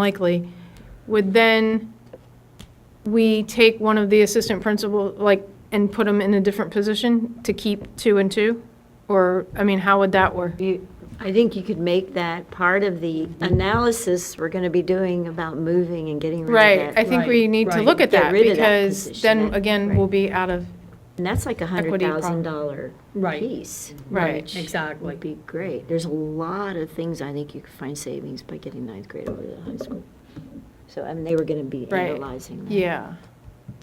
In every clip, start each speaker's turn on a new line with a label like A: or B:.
A: unlikely, would then we take one of the assistant principal, like, and put them in a different position to keep two and two? Or, I mean, how would that work?
B: You, I think you could make that part of the analysis we're going to be doing about moving and getting rid of
A: Right, I
B: that.
A: think we
C: Right,
A: need to
C: right.
A: look at
B: Get
A: that,
B: rid of that
A: because
B: position,
A: then,
B: that-
A: again, we'll be out of,
B: And that's like a hundred
A: Equity problem.
B: thousand dollar
C: Right.
B: piece.
A: Right,
B: which
C: exactly.
B: Would be great. There's a lot of things I think you could find savings by getting ninth grade over to the high school. So, I mean, they were going to be
A: Right.
B: analyzing that.
A: yeah.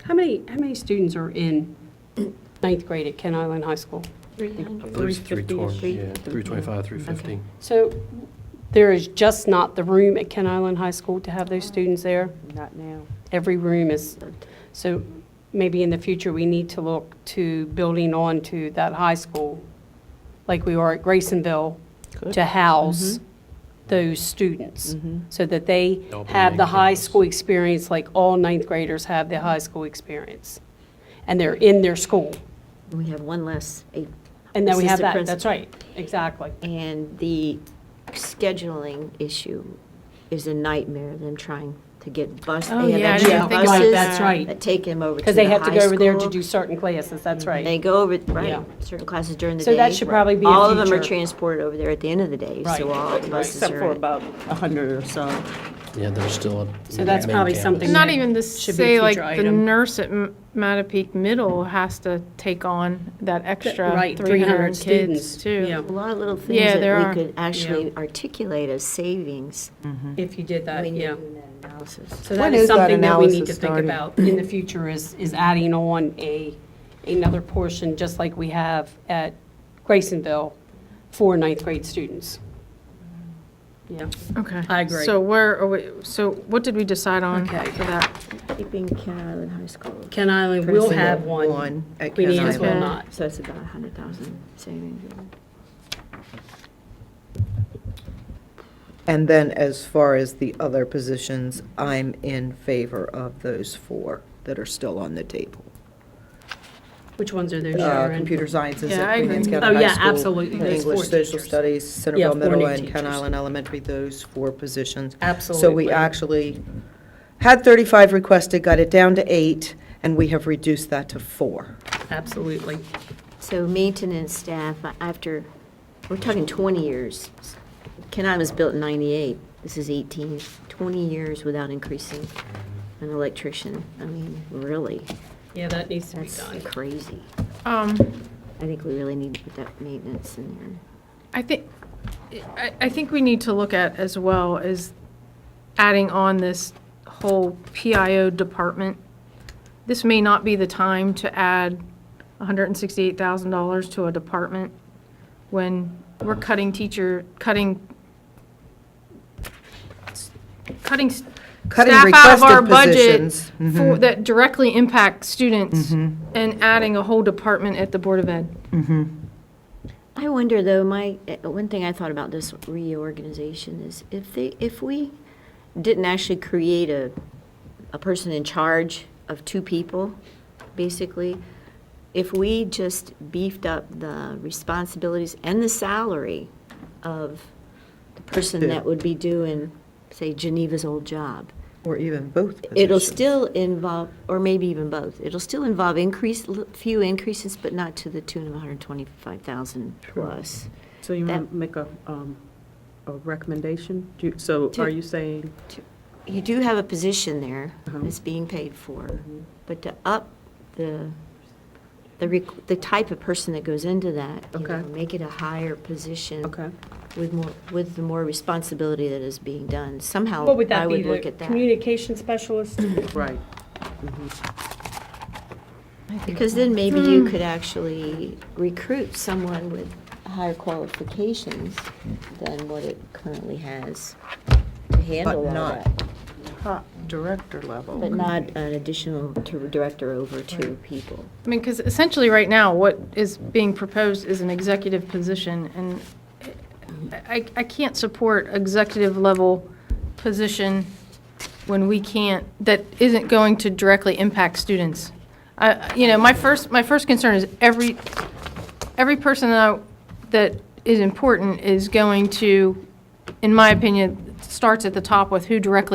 C: How many, how many students are in ninth grade at Ken Island High School?
D: I believe it's
C: 350 -ish.
D: 320, yeah, 325, 350.
C: So there is just not the room at Ken Island High School to have those students there? Not now. Every room is, so maybe in the future, we need to look to building on to that high school, like we are at Graysonville, to house those students,
B: Mm-hmm.
C: so that they
D: Double
C: have the
D: making
C: high
D: us.
C: school experience, like all ninth graders have the high school experience, and they're in their school.
B: We have one less, eight.
C: And then we have
B: assistant
C: that, that's
B: principal.
C: right, exactly.
B: And the scheduling issue is a nightmare, them trying to get bus,
A: Oh, yeah,
B: they
A: I
B: have
A: didn't
B: extra
A: think about
B: buses
A: that.
C: right.
B: that take them over to the high school. Mm-hmm.
C: Because they have to go over there to do certain classes, that's
B: They
C: right.
B: go over,
C: Yeah.
B: right, certain classes during the day.
C: So that should probably be a
B: All of them are
C: feature.
B: transported over there at the end of the day,
C: Right.
B: so all the buses
E: Except for
B: are.
E: about 100 or so.
D: Yeah, they're still up.
C: So that's
D: main
C: probably
D: campus.
C: something-
A: Not even to
C: Should be a
A: say, like,
C: future
A: the
C: item.
A: nurse at M- Mattapique Middle has to take on that extra
C: right,
A: 300
C: 300
A: kids,
C: students, yeah.
A: too.
B: A lot of little
A: Yeah,
B: things
A: there
B: that
A: are.
B: we could actually articulate as savings.
C: If you did
B: I
C: that,
B: mean,
C: Uh, yeah.
B: doing that analysis.
C: So
E: When
C: that is
E: is that
C: something that we need to
E: analysis
C: think
E: starting?
C: about in the future is, is adding on a, another portion, just like we have at Graysonville for ninth grade students. Yeah.
A: Okay.
C: I agree.
A: So where, are we- so what did we decide on
C: Okay.
A: for that?
B: Keeping Ken Island High School,
C: Ken Island will have one.
E: One at
C: We
E: Ken
C: need as well
A: Island.
C: not.
B: so it's about a hundred thousand savings.
E: And then as far as the other positions, I'm in favor of those four that are still on the table.
C: Which ones are those?
E: Uh,
C: Sharon?
E: Computer sciences
A: Yeah, I
E: at Queen Anne's
A: agree.
C: Oh,
E: County High
C: yeah,
E: School,
C: absolutely. Those four
E: English, social
C: teachers.
E: studies,
C: Yeah,
E: Centerville
C: four
E: Middle
C: new
E: and Ken
C: teachers.
E: Island Elementary, those four positions. So we
C: Absolutely.
E: actually had 35 requested, got it down to eight, and we have reduced that to four.
C: Absolutely.
B: So maintenance staff, uh, after, we're talking 20 years. Kenai was built in 98, this is 18, 20 years without increasing an electrician. I mean, really,
C: Yeah, that needs to be
B: that's
C: done.
B: crazy.
A: Um,
B: I think we really need to put that maintenance in there.
A: I think, I, I think we need to look at as well is adding on this whole PIO department. This may not be the time to add $168,000 to a department when we're cutting teacher, cutting, cutting s-
E: Cutting
A: staff out of
E: requested
A: our budget
E: positions. Mm-hmm.
A: for, that directly impact students and adding a whole department at the Board of Ed.
B: I wonder, though, my, uh, one thing I thought about this reorganization is if they, if we didn't actually create a, a person in charge of two people, basically, if we just beefed up the responsibilities and the salary of the person that would be doing, say, Geneva's old job,
E: Or even both positions.
B: it'll still involve, or maybe even both, it'll still involve increase, few increases, but not to the tune of 125,000 plus.
F: So you
B: That-
F: want to make a, um, a recommendation? Do you- So
B: To-
F: are you saying,
B: You do have a position there
F: Uh-huh. Mm-hmm.
B: that's being paid for, but to up the, the, req- the type of person that goes into that, you know,
F: Okay.
B: make it a higher position
F: okay,
B: with more, with the more responsibility that is being done. Somehow,
C: What would
B: I
C: that be,
B: would look
C: the
B: at that.
C: communication specialist?
F: right,
B: Because then maybe you could actually recruit someone with higher qualifications than what it currently has to handle all
E: not-
B: that.
E: Top director level.
B: But not an additional to director over two people.
A: I mean, because essentially, right now, what is being proposed is an executive position, and I, I can't support executive-level position when we can't, that isn't going to directly impact students. I- You know, my first, my first concern is every, every person that I- that is important is going to, in my opinion, starts at the top with who directly